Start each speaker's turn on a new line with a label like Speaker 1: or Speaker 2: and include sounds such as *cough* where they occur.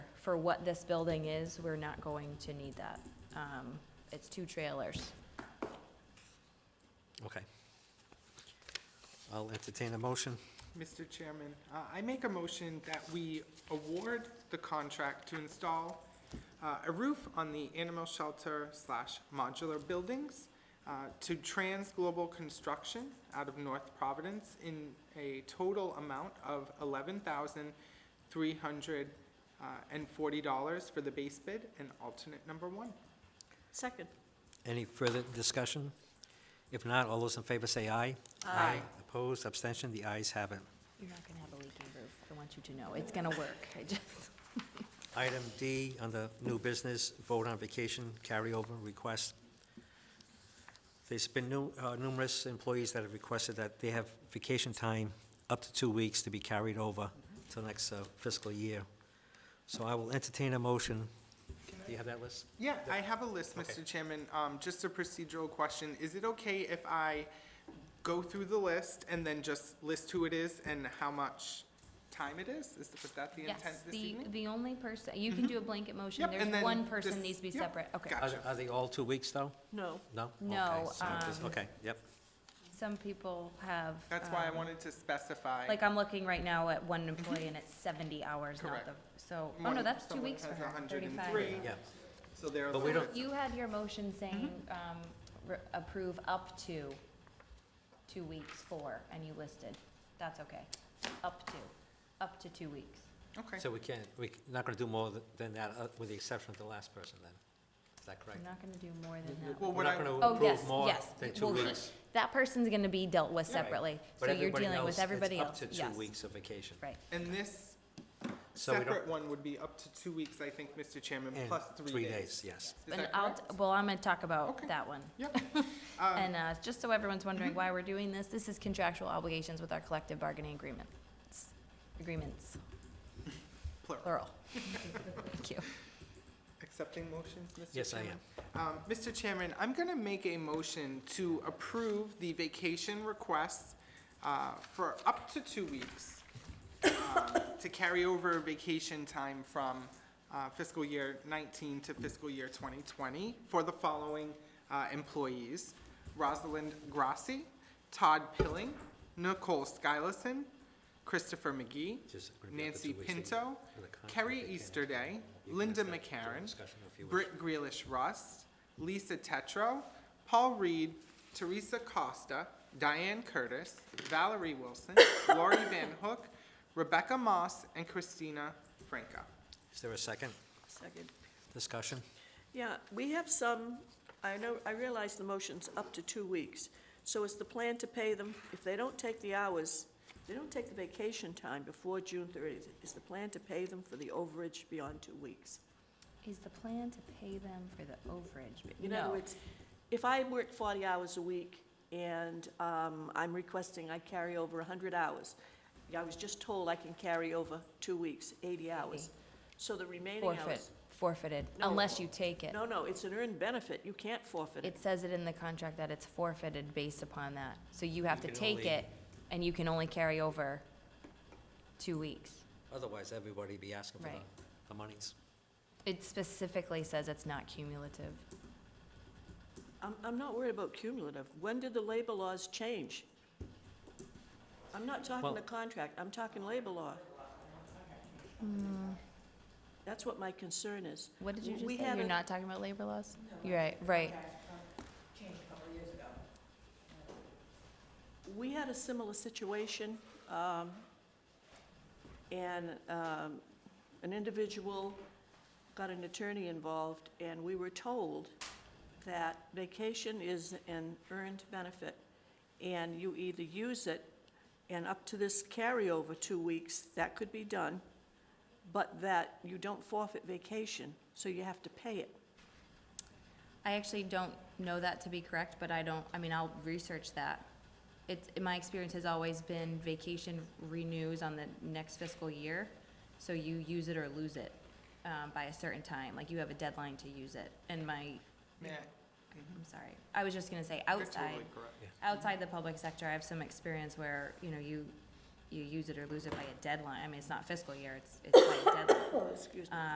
Speaker 1: for what this building is, we're not going to need that. Um, It's two trailers.
Speaker 2: Okay. I'll entertain a motion.
Speaker 3: Mr. Chairman, uh, I make a motion that we award the contract to install uh, a roof on the animal shelter slash modular buildings uh, to Trans Global Construction out of North Providence in a total amount of eleven thousand three hundred uh, and forty dollars for the base bid and alternate number one.
Speaker 4: Second.
Speaker 2: Any further discussion? If not, all those in favor say aye.
Speaker 3: Aye.
Speaker 2: Opposed, abstention, the ayes have it.
Speaker 1: You're not gonna have a leaking roof. I want you to know. It's gonna work. I just,
Speaker 2: Item D, under new business, vote on vacation carryover request. There's been nu- uh, numerous employees that have requested that they have vacation time up to two weeks to be carried over till next uh, fiscal year. So I will entertain a motion. Do you have that list?
Speaker 3: Yeah, I have a list,
Speaker 2: Okay.
Speaker 3: Mr. Chairman. Um, just a procedural question. Is it okay if I go through the list and then just list who it is and how much time it is? Is was that *laughs* the intent
Speaker 1: yes,
Speaker 3: this
Speaker 1: the,
Speaker 3: evening? Mm-hmm.
Speaker 1: the only person, you can do a blanket motion.
Speaker 3: Yep, and
Speaker 1: There's
Speaker 3: then
Speaker 1: one person
Speaker 3: just-
Speaker 1: needs to be
Speaker 3: yep,
Speaker 1: separate. Okay.
Speaker 3: got
Speaker 2: Are are they all two weeks, though?
Speaker 4: No.
Speaker 2: No? Okay,
Speaker 1: No,
Speaker 2: so it is-
Speaker 1: um,
Speaker 2: Okay, yep.
Speaker 1: Some people have.
Speaker 3: That's why I
Speaker 1: um,
Speaker 3: wanted to specify.
Speaker 1: Like, I'm looking right now at one employee and it's seventy hours, not
Speaker 3: Correct.
Speaker 1: the, so, oh no,
Speaker 3: One-
Speaker 1: that's two
Speaker 3: someone
Speaker 1: weeks for
Speaker 3: has
Speaker 1: her,
Speaker 3: 103,
Speaker 1: thirty-five.
Speaker 2: Yeah.
Speaker 3: So there are.
Speaker 2: But we
Speaker 3: some-
Speaker 2: don't-
Speaker 1: You had your motion saying,
Speaker 3: Mm-hmm.
Speaker 1: um, re- approve up to two weeks for, and you listed, that's okay, up to, up to two weeks.
Speaker 3: Okay.
Speaker 2: So we can't, we're not going to do more th- than that, uh, with the exception of the last person, then? Is that correct?
Speaker 1: I'm not gonna do more than that.
Speaker 3: Well,
Speaker 2: We're
Speaker 3: what
Speaker 2: not
Speaker 3: I,
Speaker 2: going to
Speaker 1: Oh, yes,
Speaker 2: approve more
Speaker 1: yes.
Speaker 2: than
Speaker 1: It
Speaker 2: two
Speaker 1: will *laughs* be-
Speaker 2: weeks.
Speaker 1: That person's gonna be dealt with
Speaker 2: Right.
Speaker 1: separately,
Speaker 2: But
Speaker 1: so you're
Speaker 2: everybody
Speaker 1: dealing
Speaker 2: it's
Speaker 1: with everybody else,
Speaker 2: up to two
Speaker 1: yes,
Speaker 2: weeks of vacation.
Speaker 1: right.
Speaker 3: and this
Speaker 2: So we don't-
Speaker 3: separate one would be up to two weeks, I think, Mr. Chairman,
Speaker 2: And
Speaker 3: plus three days.
Speaker 2: yes.
Speaker 3: Is
Speaker 1: And
Speaker 3: that
Speaker 1: I'll,
Speaker 3: correct?
Speaker 1: t- well, I'm gonna talk about
Speaker 3: Okay. Mm-hmm.
Speaker 1: that one.
Speaker 3: Yep. Um,
Speaker 1: And uh, just so everyone's wondering why we're doing this, this is contractual obligations with our collective bargaining agreements. Agreements,
Speaker 3: Plural. *laughs*
Speaker 1: plural. Thank you.
Speaker 3: Accepting motions, Mr. Chairman?
Speaker 2: Yes, I am.
Speaker 3: Um, Mr. Chairman, I'm going to make a motion to approve the vacation requests uh, for up to two weeks um, to carry over vacation time from uh, fiscal year 19 to fiscal year 2020 for the following uh, employees: Rosalind Grassi, Todd Pilling, Nicole Skylison, Christopher McGee,
Speaker 2: Just gonna be up to
Speaker 3: Nancy
Speaker 2: two weeks, they-
Speaker 3: Pinto,
Speaker 2: for the contract, they
Speaker 3: Carrie
Speaker 2: can't-
Speaker 3: Easterday,
Speaker 2: you can
Speaker 3: Linda
Speaker 2: accept the
Speaker 3: McCarron,
Speaker 2: discussion if you wish.
Speaker 3: Britt Grealish Rust, Lisa Tetro, Paul Reed, Teresa Costa, Diane Curtis, Valerie Wilson, *coughs* Lori Van Hook, Rebecca Moss, and Christina Franca.
Speaker 2: Is there a second
Speaker 4: Second.
Speaker 2: discussion?
Speaker 4: Yeah, we have some, I know, I realize the motion's up to two weeks. So is the plan to pay them, if they don't take the hours, if they don't take the vacation time before June thirtieth, is the plan to pay them for the overage beyond two weeks?
Speaker 1: Is the plan to pay them for the overage? but
Speaker 4: In other
Speaker 1: no.
Speaker 4: words, if I work forty hours a week and um, I'm requesting I carry over hundred hours, I was just told I can carry over two weeks, eighty hours. So the remaining hours.
Speaker 1: Forfeit, forfeited,
Speaker 4: No.
Speaker 1: unless you take it.
Speaker 4: No, no, it's an earned benefit, you can't forfeit it.
Speaker 1: It says it in the contract that it's forfeited based upon that. So you have to
Speaker 2: You can
Speaker 1: take
Speaker 2: only-
Speaker 1: it, and you can only carry over two weeks.
Speaker 2: Otherwise, everybody be asking for the,
Speaker 1: Right.
Speaker 2: the monies.
Speaker 1: It specifically says it's not cumulative.
Speaker 4: I'm, I'm not worried about cumulative. When did the labor laws change? I'm not talking
Speaker 2: Well-
Speaker 4: the contract, I'm talking labor law. That's what my concern is.
Speaker 1: Hmm. What did you just
Speaker 4: We
Speaker 1: say? You're
Speaker 4: haven't-
Speaker 1: not talking about labor laws? You're right, right.
Speaker 4: We had a similar situation, um, and um, an individual got an attorney involved, and we were told that vacation is an earned benefit, and you either use it, and up to this carryover two weeks, that could be done, but that you don't forfeit vacation, so you have to pay it.
Speaker 1: I actually don't know that to be correct, but I don't, I mean, I'll research that. It's, my experience has always been vacation renews on the next fiscal year, so you use it or lose it, um, by a certain time, like you have a deadline to use it. And my,
Speaker 3: May I-
Speaker 1: I'm sorry, I was just gonna say
Speaker 3: You're
Speaker 1: outside,
Speaker 3: totally correct.
Speaker 1: outside the public sector, I have some experience where, you know, you, you use it or lose it by a deadline. I mean, it's not fiscal year, it's, it's by a deadline.
Speaker 4: Oh, Excuse me.
Speaker 1: Um,